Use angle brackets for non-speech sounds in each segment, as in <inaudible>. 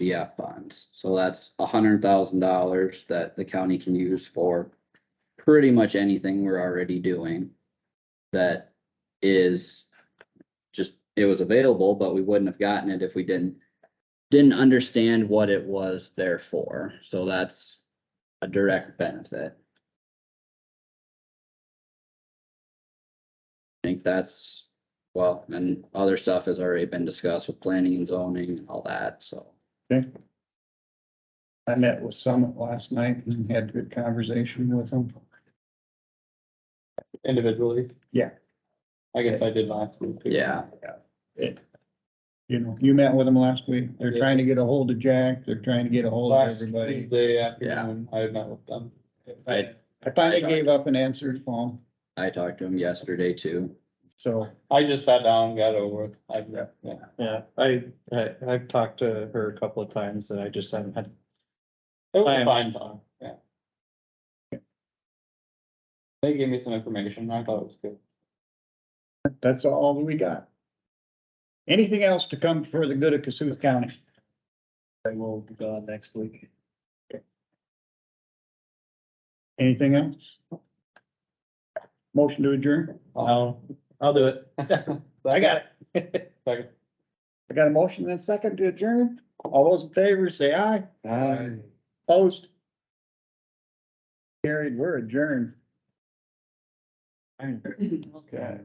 CF funds. So that's hundred thousand dollars that the county can use for pretty much anything we're already doing. That is just, it was available, but we wouldn't have gotten it if we didn't, didn't understand what it was there for. So that's a direct benefit. I think that's, well, and other stuff has already been discussed with planning and zoning and all that, so. I met with Summit last night and had a good conversation with them. individually. Yeah. I guess I did last week. too. Yeah, You know, you met with them last week. They're Yeah. trying to get a hold of Jack. They're trying to get a hold of Last everybody. Tuesday afternoon, I met with them. I- I finally gave up and answered the phone, I talked to him yesterday too. so. I just sat down, got over it. I, Yeah. yeah. Yeah, I, I, I've talked to her a couple of times and I just haven't had, It was I a am- fine time, yeah. They gave me some information. I thought it was good. That's all that we got. Anything else to come for the good of Cassuth County? I will be gone next week. Anything else? Motion to adjourn? I'll, I'll <laughs> do it. I got it. Second. I got a motion and a second to adjourn. All those in favor, say aye. Opposed? Carried, we're adjourned. Okay.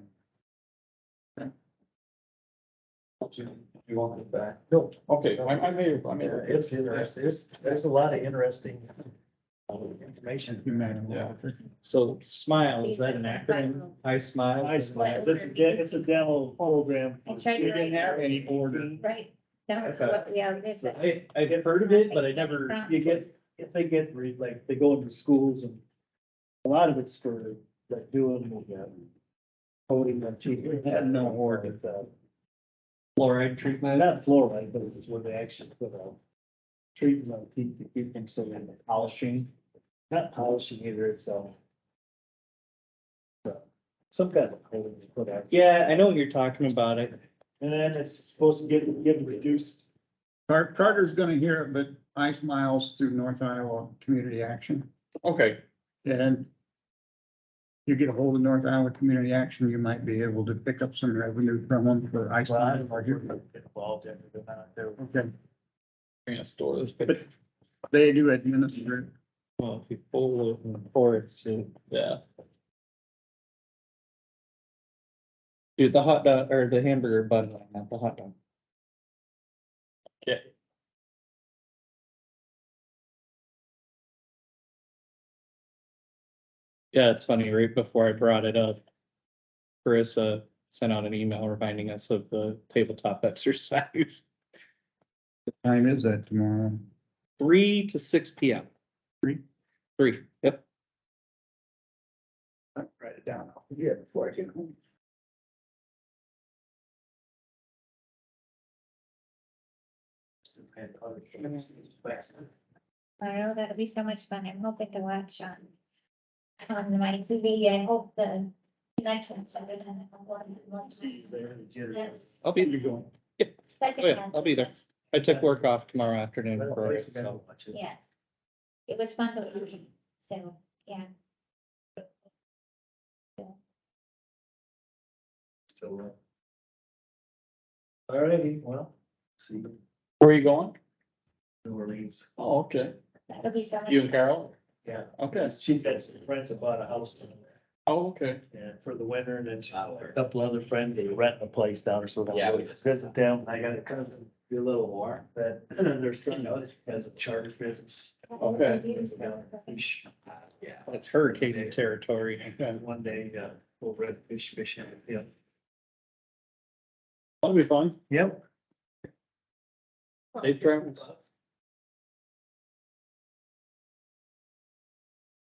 You you want it back? Okay, I, I made, I made. It's interesting, there's, there's a lot of interesting um, information. So smile, is that an acronym? I smile. I smile, it's a, de- it's a demo program. I tried to We didn't write- have any border. Right, that's Okay. what, yeah, that's So it. I, I've heard of it, but I never, you get, if they get, re- like, they go into schools and a lot of it's for, like, doing, uh, coding and cheating. Had no order. Fluoride treatment. Not fluoride, but it's where they actually put a treatment on teeth to keep them so they're not polishing, not polishing either, it's, um, so, some kind of coating they put out. Yeah, I know what you're talking about. It, And then it's supposed to get, get reduced. Car- Carter's gonna hear it, but I smiles through North Iowa Community Action Okay, and you get a hold of North Iowa Community Action, you might be able to pick up some revenue from them for I Well, I don't smiles. know if we're Involved in it or not, there. Okay, I'm gonna store this picture. they do administer. it. well, people, or it's, Yeah. dude, the hot dog or the hamburger bun, not the hot dog. Yeah, it's funny, right before I brought it up, Carissa sent out an email reminding us of the tabletop <laughs> exercise, What Time is that tomorrow? three to six P M. Three? Three, yep. I'll Write it down. Yeah, before I get home. Tomorrow, that'll be so much fun. I'm hoping to watch on, on my TV. I hope the connection's better than the one. I watched. Yes. I'll be- Second Oh, yeah, half. I'll be there. I took work off tomorrow afternoon. for it, so. Yeah. It was fun, but, so, yeah. Alrighty, well, see, Where are you going? New Orleans, Oh, okay. That'll be so much. You and Carol? yeah, Okay. she's got some friends that bought a house down there, Oh, okay. and for the winter, and then she's got a couple other friends, they rent a place down or something. Yeah. Visit them, I got a cousin, be a little warm, but <clears throat> their son has a charter business. Okay. Fish, Yeah. It's hurricane territory. And one day, uh, we'll red fish fishing, yeah. That'll be fun. Yep. Safe travels.